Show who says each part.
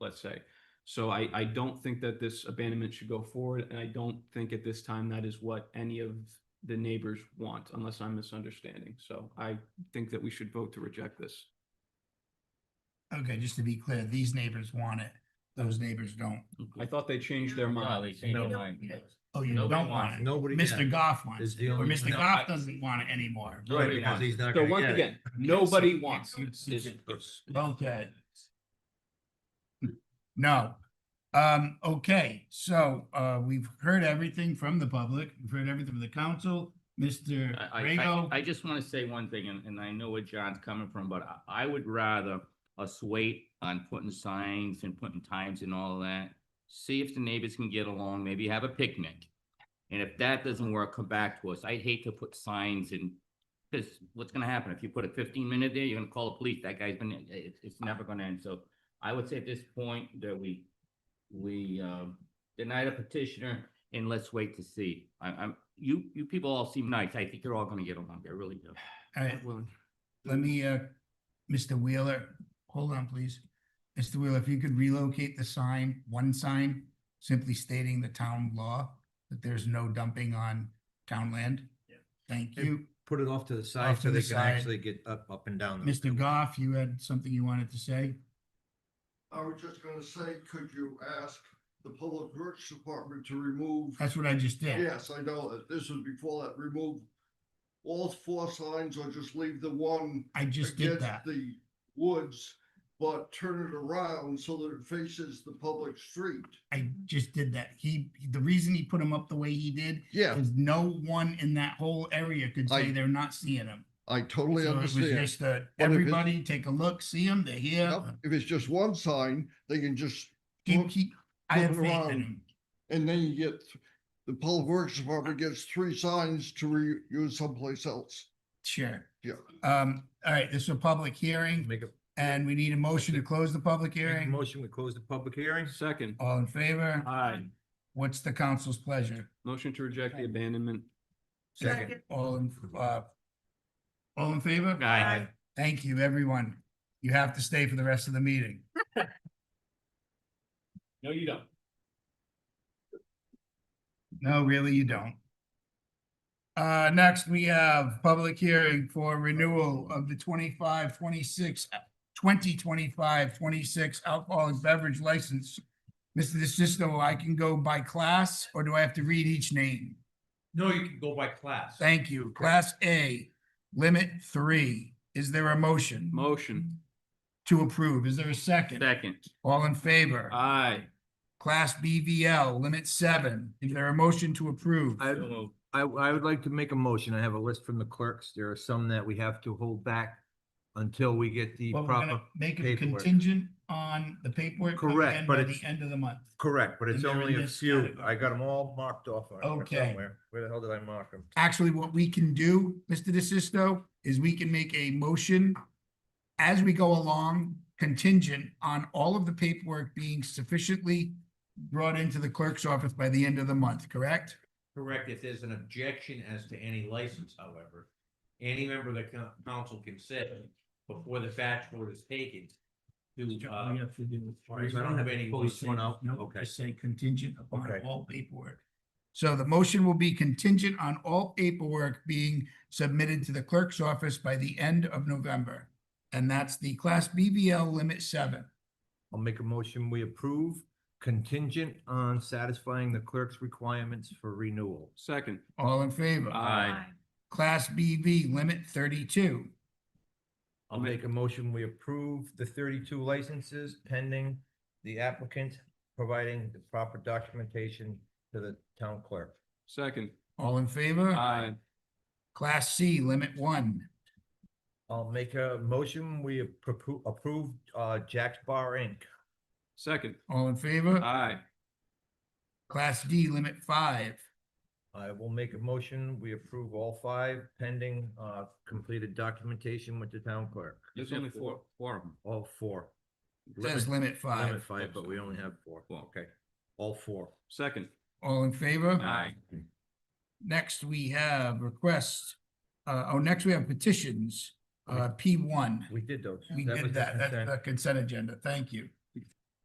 Speaker 1: let's say. So I, I don't think that this abandonment should go forward, and I don't think at this time that is what any of the neighbors want, unless I'm misunderstanding. So I think that we should vote to reject this.
Speaker 2: Okay, just to be clear, these neighbors want it, those neighbors don't.
Speaker 1: I thought they changed their
Speaker 3: No, they
Speaker 1: mind.
Speaker 3: changed their
Speaker 2: No.
Speaker 3: mind.
Speaker 2: Oh, you
Speaker 3: Nobody
Speaker 2: don't
Speaker 3: wants
Speaker 2: want it.
Speaker 4: Nobody.
Speaker 2: Mr. Goff wants
Speaker 4: Is
Speaker 2: it,
Speaker 4: the
Speaker 2: or
Speaker 4: only-
Speaker 2: Mr.
Speaker 4: No,
Speaker 2: Goff doesn't want it anymore.
Speaker 4: Right, because he's not
Speaker 1: So
Speaker 4: gonna
Speaker 1: once
Speaker 4: get it.
Speaker 1: again, nobody
Speaker 2: so-
Speaker 1: wants it.
Speaker 2: Okay. No. Um, okay, so, uh, we've heard everything from the public, we've heard everything from the council, Mr.
Speaker 3: I, I- I, I
Speaker 2: Rego.
Speaker 3: just want to say one thing, and, and I know where John's coming from, but I- I would rather us wait on putting signs and putting times and all of that. See if the neighbors can get along, maybe have a picnic. And if that doesn't work, come back to us. I'd hate to put signs and, because what's gonna happen? If you put a fifteen minute there, you're gonna call the police. That guy's been, it- it's, it's never gonna end. So I would say at this point that we, we, um, deny the petitioner and let's wait to see. I, I'm, you, you people all seem nice. I think you're all gonna get along. I really do.
Speaker 2: All right,
Speaker 1: Well,
Speaker 2: let me, uh, Mr. Wheeler, hold on, please. Mr. Wheeler, if you could relocate the sign, one sign, simply stating the town law, that there's no dumping on town land. Thank
Speaker 4: And
Speaker 2: you.
Speaker 4: Put it off to the side
Speaker 2: Off to
Speaker 4: so
Speaker 2: the
Speaker 4: they can
Speaker 2: side.
Speaker 4: actually get up, up and down. the-
Speaker 2: Mr. Goff, you had something you wanted to say?
Speaker 5: I was just gonna say, could you ask the Public Works Department to remove?
Speaker 2: That's what I just did.
Speaker 5: Yes, I know that. This was before that. Remove all four signs or just leave the one
Speaker 2: I just did
Speaker 5: against
Speaker 2: that.
Speaker 5: the woods, but turn it around so that it faces the public street.
Speaker 2: I just did that. He, the reason he put him up the way he did
Speaker 5: Yeah,
Speaker 2: is no one in that whole area could say
Speaker 5: I
Speaker 2: they're not seeing him.
Speaker 5: I totally
Speaker 2: So it was just a,
Speaker 5: But if it-
Speaker 2: everybody take a look, see him, they're here.
Speaker 5: Yep, If it's just one sign, they can just,
Speaker 2: Keep,
Speaker 5: look-
Speaker 2: keep, I have
Speaker 5: looking
Speaker 2: faith in
Speaker 5: around.
Speaker 2: him.
Speaker 5: and then you get, the Public Works Department gets three signs to reuse someplace else.
Speaker 2: Sure.
Speaker 5: Yeah.
Speaker 2: Um, all right, this is a public hearing
Speaker 4: Make a,
Speaker 2: and we need a motion to close the public
Speaker 4: make a
Speaker 2: hearing.
Speaker 4: motion, we close the public hearing.
Speaker 1: Second,
Speaker 2: All in favor?
Speaker 1: aye.
Speaker 2: What's the council's pleasure?
Speaker 1: Motion to reject the abandonment.
Speaker 4: Second,
Speaker 2: All in, uh, all in favor?
Speaker 3: Aye.
Speaker 2: Thank you, everyone. You have to stay for the rest of the meeting.
Speaker 3: No, you don't.
Speaker 2: No, really, you don't. Uh, next, we have public hearing for renewal of the 25, 26, 2025, 26 alcoholic beverage license. Mr. DeSisto, I can go by class, or do I have to read each name?
Speaker 6: No, you can go by class.
Speaker 2: Thank you. Class A, limit three. Is there a motion?
Speaker 1: Motion,
Speaker 2: To approve. Is there a second?
Speaker 3: Second, Uh.
Speaker 2: All in favor?
Speaker 1: aye.
Speaker 2: Class BVL, limit seven. Is there a motion to approve?
Speaker 4: I, I, I would like to make a motion. I have a list from the clerks. There are some that we have to hold back until we get the
Speaker 2: Well, we're gonna
Speaker 4: proper.
Speaker 2: Make it
Speaker 4: paperwork.
Speaker 2: contingent on the paperwork. coming
Speaker 4: Correct,
Speaker 2: in
Speaker 4: but
Speaker 2: by
Speaker 4: it's-
Speaker 2: The end of the month.
Speaker 4: Correct, but it's
Speaker 2: And they're
Speaker 4: only
Speaker 2: in
Speaker 4: a
Speaker 2: this
Speaker 4: few.
Speaker 2: category.
Speaker 4: I got them all marked off on here
Speaker 2: Okay.
Speaker 4: somewhere. Where the hell did I mark them?
Speaker 2: Actually, what we can do, Mr. DeSisto, is we can make a motion as we go along contingent on all of the paperwork being sufficiently brought into the clerk's office by the end of the month, correct?
Speaker 6: Correct, if there's an objection as to any license, however, any member of the coun- council can say before the batch vote is taken to, uh,
Speaker 4: Sorry, so I don't have
Speaker 6: any
Speaker 4: to pull this one out.
Speaker 2: No,
Speaker 4: Okay.
Speaker 2: just say contingent upon
Speaker 4: Okay.
Speaker 2: all paperwork. So the motion will be contingent on all paperwork being submitted to the clerk's office by the end of November. And that's the class BBL limit seven.
Speaker 4: I'll make a motion. We approve contingent on satisfying the clerk's requirements for renewal.
Speaker 1: Second,
Speaker 2: All in favor?
Speaker 1: aye.
Speaker 2: Class BV limit thirty-two.
Speaker 4: I'll make a motion, we approve the thirty-two licenses pending the applicant providing the proper documentation to the town clerk.
Speaker 1: Second,
Speaker 2: All in favor?
Speaker 1: aye.
Speaker 2: Class C limit one.
Speaker 4: I'll make a motion, we appro- approve, uh, Jack's Bar Inc.
Speaker 1: Second,
Speaker 2: All in favor?
Speaker 1: aye.
Speaker 2: Class D limit five.
Speaker 4: I will make a motion, we approve all five pending, uh, completed documentation with the town clerk,
Speaker 1: There's only four, four of them.
Speaker 4: all four.
Speaker 2: Says
Speaker 4: Limit-
Speaker 2: limit
Speaker 4: limit
Speaker 2: five.
Speaker 4: Five, but we only have four, okay, all four.
Speaker 1: Second,
Speaker 2: All in favor?
Speaker 1: aye.
Speaker 2: Next, we have requests. Uh, oh, next we have petitions, uh, P one.
Speaker 4: We did those.
Speaker 2: We
Speaker 4: was
Speaker 2: did
Speaker 4: the
Speaker 2: that. That's
Speaker 4: consent.
Speaker 2: the consent agenda. Thank you.